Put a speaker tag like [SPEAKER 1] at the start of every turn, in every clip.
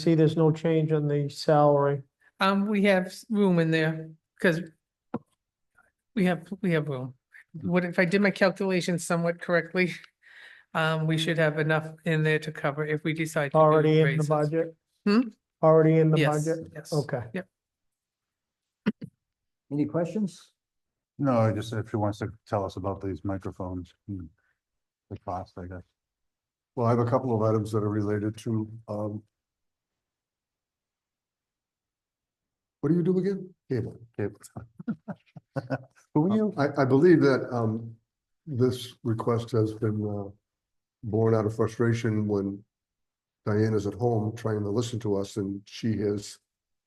[SPEAKER 1] See, there's no change on the salary.
[SPEAKER 2] Um, we have s- room in there, because we have, we have room.
[SPEAKER 1] Mm-hmm.
[SPEAKER 2] What if I did my calculations somewhat correctly? Um, we should have enough in there to cover if we decide. to do
[SPEAKER 1] Already in the
[SPEAKER 2] raises.
[SPEAKER 1] budget?
[SPEAKER 2] Hmm?
[SPEAKER 1] Already in the
[SPEAKER 2] Yes,
[SPEAKER 1] budget?
[SPEAKER 2] yes.
[SPEAKER 1] Okay.
[SPEAKER 3] Any questions?
[SPEAKER 4] No, I just if she wants to tell us about these microphones, and the cost, I guess.
[SPEAKER 3] Well, I have a couple of items that are related to, um. What do you do again? Cable.
[SPEAKER 4] Okay. Who are you?
[SPEAKER 3] I, I believe that, um, this request has been, uh, born out of frustration when Diane is at home trying to listen to us and she hears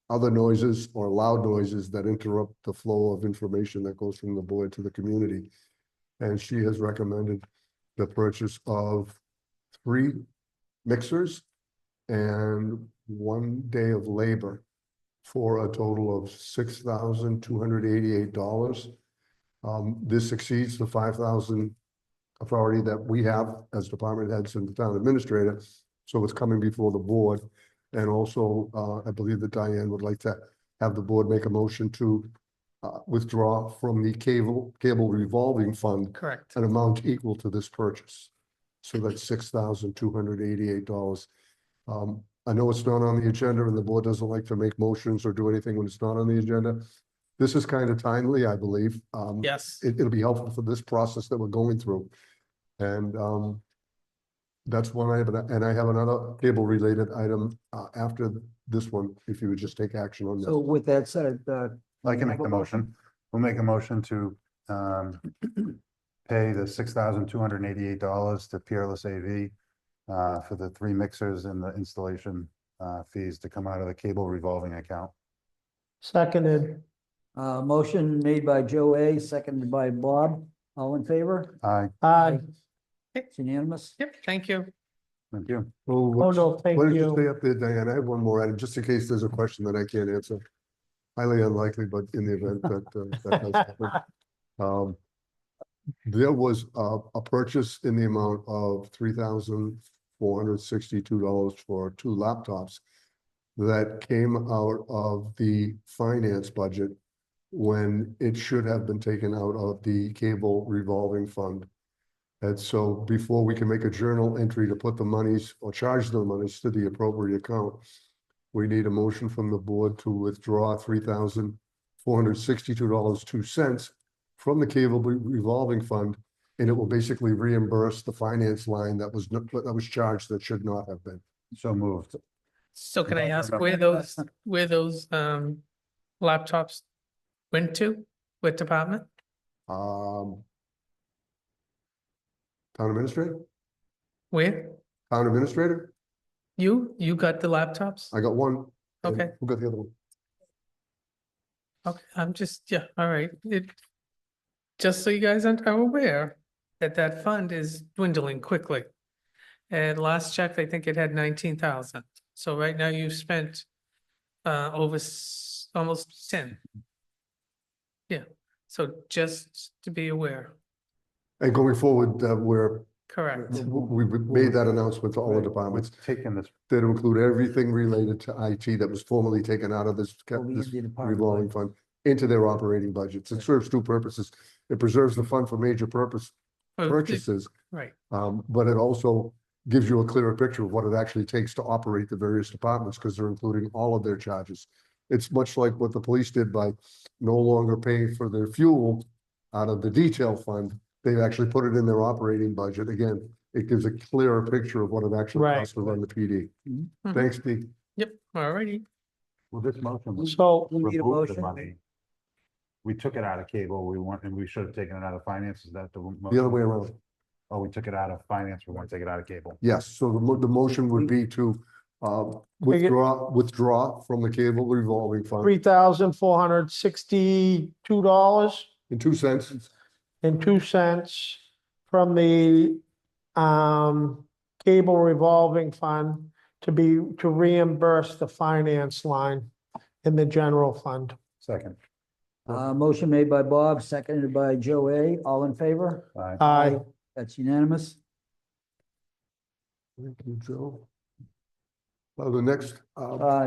[SPEAKER 3] other noises or loud noises that interrupt the flow of information that goes from the board to the community. And she has recommended the purchase of three mixers and one day of labor for a total of six thousand two hundred eighty-eight dollars. Um, this exceeds the five thousand authority that we have as department heads and the town administrator. So it's coming before the board. And also, uh, I believe that Diane would like to have the board make a motion to uh, withdraw from the cable, cable revolving fund
[SPEAKER 2] Correct.
[SPEAKER 3] an amount equal to this purchase. So that's six thousand two hundred eighty-eight dollars. Um, I know it's not on the agenda and the board doesn't like to make motions or do anything when it's not on the agenda. This is kind of timely, I believe. Um,
[SPEAKER 2] Yes.
[SPEAKER 3] It, it'll be helpful for this process that we're going through. And, um, that's one item, and I have another cable-related item, uh, after this one, if you would just take action on
[SPEAKER 5] So
[SPEAKER 3] that.
[SPEAKER 5] with that said, uh,
[SPEAKER 4] I can make
[SPEAKER 5] Have
[SPEAKER 4] the
[SPEAKER 5] a
[SPEAKER 4] motion. We'll make a motion to um pay the six thousand two hundred and eighty-eight dollars to Peerless AV uh for the three mixers and the installation uh fees to come out of the cable revolving account.
[SPEAKER 1] Seconded,
[SPEAKER 5] uh, motion made by Joe A, seconded by Bob. All in favor?
[SPEAKER 4] Aye,
[SPEAKER 1] aye. Oh,
[SPEAKER 5] It's unanimous.
[SPEAKER 2] Yep, thank you.
[SPEAKER 4] thank you.
[SPEAKER 3] Oh,
[SPEAKER 1] Oh,
[SPEAKER 3] what's-
[SPEAKER 1] no, thank
[SPEAKER 3] What did you say
[SPEAKER 1] you.
[SPEAKER 3] up there, Diane? I have one more item, just in case there's a question that I can't answer. Highly unlikely, but in the event that, uh, that does happen. Um, there was a, a purchase in the amount of three thousand four hundred sixty-two dollars for two laptops that came out of the finance budget when it should have been taken out of the cable revolving fund. And so before we can make a journal entry to put the monies or charge the monies to the appropriate account, we need a motion from the board to withdraw three thousand four hundred sixty-two dollars, two cents from the cable re- revolving fund, and it will basically reimburse the finance line that was, not- that was charged that should not have been.
[SPEAKER 4] So moved.
[SPEAKER 2] So can I
[SPEAKER 4] Don't
[SPEAKER 2] ask
[SPEAKER 4] remember.
[SPEAKER 2] where those, where those, um, laptops went to? What department?
[SPEAKER 3] Um, Town administrator,
[SPEAKER 2] Where?
[SPEAKER 3] town administrator,
[SPEAKER 2] You, you got the laptops?
[SPEAKER 3] I got one. and
[SPEAKER 2] Okay.
[SPEAKER 3] Who got the other one?
[SPEAKER 2] Okay, I'm just, yeah, all right, it, just so you guys aren't- are aware that that fund is dwindling quickly. And last check, I think it had nineteen thousand, so right now you've spent uh over s- almost ten. Yeah, so just to be aware,
[SPEAKER 3] And going forward, uh, we're,
[SPEAKER 2] correct,
[SPEAKER 3] we we made that announcement to all the
[SPEAKER 4] Right.
[SPEAKER 3] departments.
[SPEAKER 4] We've Taken this,
[SPEAKER 3] that include everything related to IT that was formerly taken out of this, ca-
[SPEAKER 5] Will be in
[SPEAKER 3] this
[SPEAKER 5] the department
[SPEAKER 3] revolving
[SPEAKER 5] budget.
[SPEAKER 3] fund into their operating budgets. It serves two purposes. It preserves the fund for major purpose
[SPEAKER 2] Oh, it-
[SPEAKER 3] purchases,
[SPEAKER 2] right,
[SPEAKER 3] um, but it also gives you a clearer picture of what it actually takes to operate the various departments because they're including all of their charges. It's much like what the police did by no longer paying for their fuel out of the detail fund. They actually put it in their operating budget. Again, it gives a clearer picture of what it actually
[SPEAKER 1] Right.
[SPEAKER 3] costs to run the PD.
[SPEAKER 5] Mhm.
[SPEAKER 3] Thanks, Dee.
[SPEAKER 2] yep, alrighty,
[SPEAKER 4] well, this motion was
[SPEAKER 1] So,
[SPEAKER 5] We need a
[SPEAKER 4] remove the
[SPEAKER 5] motion.
[SPEAKER 4] money. We took it out of cable, we want, and we should have taken it out of finance, is that the?
[SPEAKER 3] The other
[SPEAKER 4] motion?
[SPEAKER 3] way around.
[SPEAKER 4] Oh, we took it out of finance, we want to take it out of cable.
[SPEAKER 3] Yes, so the mo- the motion would be to um
[SPEAKER 1] Take it-
[SPEAKER 3] withdraw, withdraw from the cable revolving fund
[SPEAKER 1] three thousand four hundred sixty-two dollars
[SPEAKER 3] in two cents.
[SPEAKER 1] and two cents from the um, cable revolving fund to be, to reimburse the finance line in the general fund.
[SPEAKER 4] Second,
[SPEAKER 5] Uh, motion made by Bob, seconded by Joe A. All in favor?
[SPEAKER 4] aye.
[SPEAKER 1] Aye.
[SPEAKER 5] That's unanimous.
[SPEAKER 3] Thank you, Joe. Well, the next, uh,
[SPEAKER 5] Uh,